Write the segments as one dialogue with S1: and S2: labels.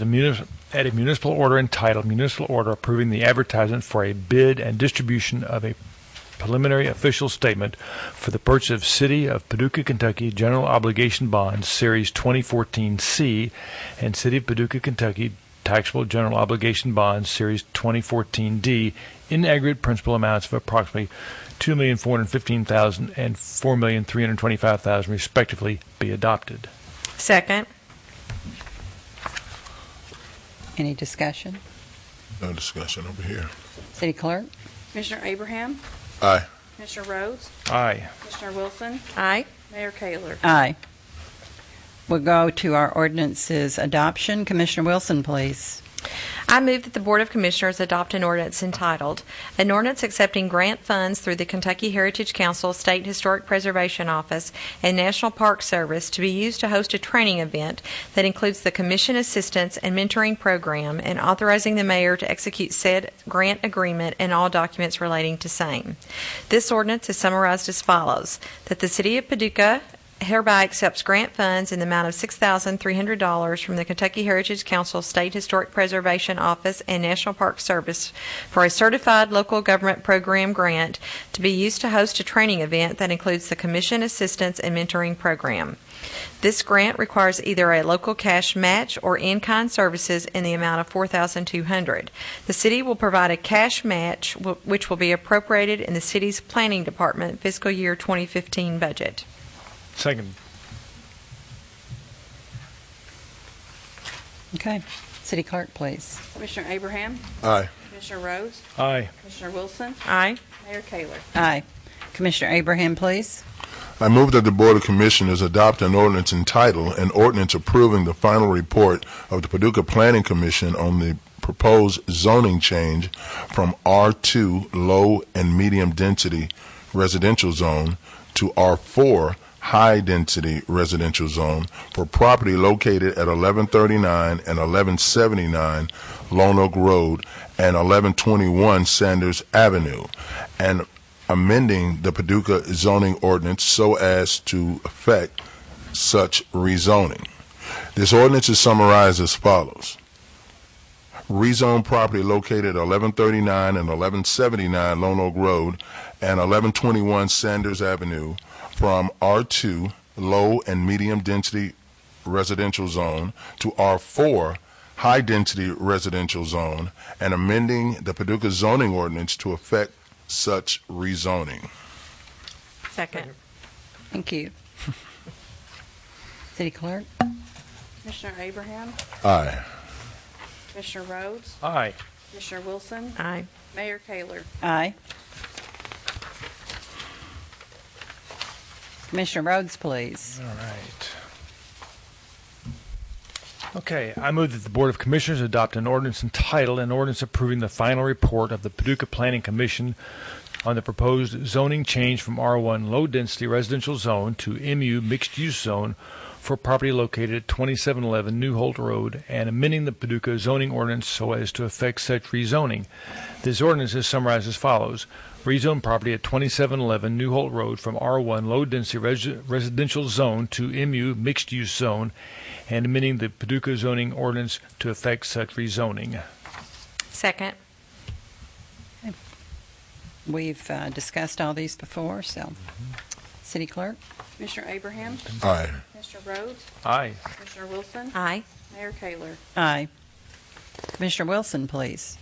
S1: a munis- at a municipal order entitled Municipal Order Approving the Advertisement for a Bid and Distribution of a Preliminary Official Statement for the Purchase of City of Paducah, Kentucky General Obligation Bonds Series 2014C and City of Paducah, Kentucky Taxable General Obligation Bonds Series 2014D in aggregate principal amounts of approximately $2,415,000 and $4,325,000 respectively be adopted.
S2: Second.
S3: Any discussion?
S4: No discussion over here.
S3: City Clerk?
S5: Commissioner Abraham,
S4: Aye.
S5: Commissioner Rhodes,
S1: Aye.
S5: Commissioner Wilson,
S2: Aye.
S5: Mayor Kayler.
S3: Aye. We'll go to our ordinances adoption. Commissioner Wilson, please.
S2: I move that the Board of Commissioners adopt an ordinance entitled, "An Ordinance Accepting Grant Funds Through the Kentucky Heritage Council, State Historic Preservation Office, and National Park Service to be used to host a training event that includes the commission assistance and mentoring program, and authorizing the mayor to execute said grant agreement and all documents relating to same." This ordinance is summarized as follows: That the City of Paducah hereby accepts grant funds in the amount of $6,300 from the Kentucky Heritage Council State Historic Preservation Office and National Park Service for a certified local government program grant to be used to host a training event that includes the commission assistance and mentoring program. This grant requires either a local cash match or in-kind services in the amount of $4,200. The city will provide a cash match, wh- which will be appropriated in the city's planning department fiscal year 2015 budget.
S1: Second.
S3: Okay. City Clerk, please.
S5: Commissioner Abraham,
S4: Aye.
S5: Commissioner Rhodes,
S1: Aye.
S5: Commissioner Wilson,
S2: Aye.
S5: Mayor Kayler.
S3: Aye. Commissioner Abraham, please.
S4: I move that the Board of Commissioners adopt an ordinance entitled, an ordinance approving the final report of the Paducah Planning Commission on the proposed zoning change from R2 Low and Medium Density Residential Zone to R4 High Density Residential Zone for property located at 1139 and 1179 Lone Oak Road and 1121 Sanders Avenue, and amending the Paducah zoning ordinance so as to affect such rezoning. This ordinance is summarized as follows. Rezone property located at 1139 and 1179 Lone Oak Road and 1121 Sanders Avenue from R2 Low and Medium Density Residential Zone to R4 High Density Residential Zone and amending the Paducah zoning ordinance to affect such rezoning.
S2: Second.
S3: Thank you. City Clerk?
S5: Commissioner Abraham,
S4: Aye.
S5: Commissioner Rhodes,
S1: Aye.
S5: Commissioner Wilson,
S2: Aye.
S5: Mayor Kayler.
S3: Aye. Commissioner Rhodes, please.
S1: All right. Okay, I move that the Board of Commissioners adopt an ordinance entitled, an ordinance approving the final report of the Paducah Planning Commission on the proposed zoning change from R1 Low Density Residential Zone to MU Mixed Use Zone for property located at 2711 New Holt Road and amending the Paducah zoning ordinance so as to affect such rezoning. This ordinance is summarized as follows. Rezone property at 2711 New Holt Road from R1 Low Density Resi- Residential Zone to MU Mixed Use Zone and amending the Paducah zoning ordinance to affect such rezoning.
S2: Second.
S3: We've uh, discussed all these before, so. City Clerk?
S5: Commissioner Abraham,
S4: Aye.
S5: Commissioner Rhodes,
S1: Aye.
S5: Commissioner Wilson,
S2: Aye.
S5: Mayor Kayler.
S3: Aye. Commissioner Wilson, please.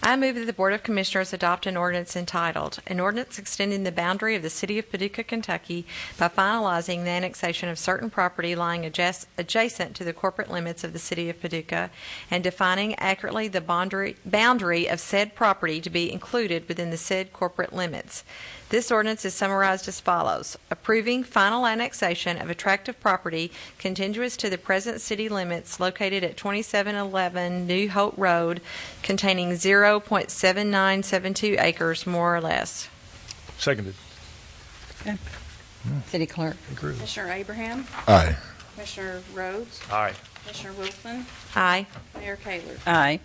S2: I move that the Board of Commissioners adopt an ordinance entitled, "An Ordinance Extending the Boundary of the City of Paducah, Kentucky by Finalizing the Annexation of Certain Property Lying adjac- Adjacent to the Corporate Limits of the City of Paducah and Defining Accurately the Boundary boundary of Said Property to be Included Within the Said Corporate Limits." This ordinance is summarized as follows. Approving final annexation of a tract of property contiguous to the present city limits located at 2711 New Hope Road containing 0.7972 acres, more or less.
S1: Seconded.
S3: City Clerk?
S5: Commissioner Abraham,
S4: Aye.
S5: Commissioner Rhodes,
S1: Aye.
S5: Commissioner Wilson,
S2: Aye.
S5: Mayor Kayler.
S3: Aye.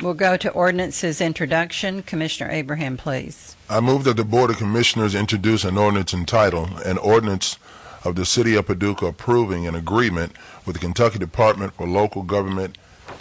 S3: We'll go to ordinances introduction. Commissioner Abraham, please.
S4: I move that the Board of Commissioners introduce an ordinance entitled, an ordinance of the City of Paducah approving an agreement with the Kentucky Department for Local Government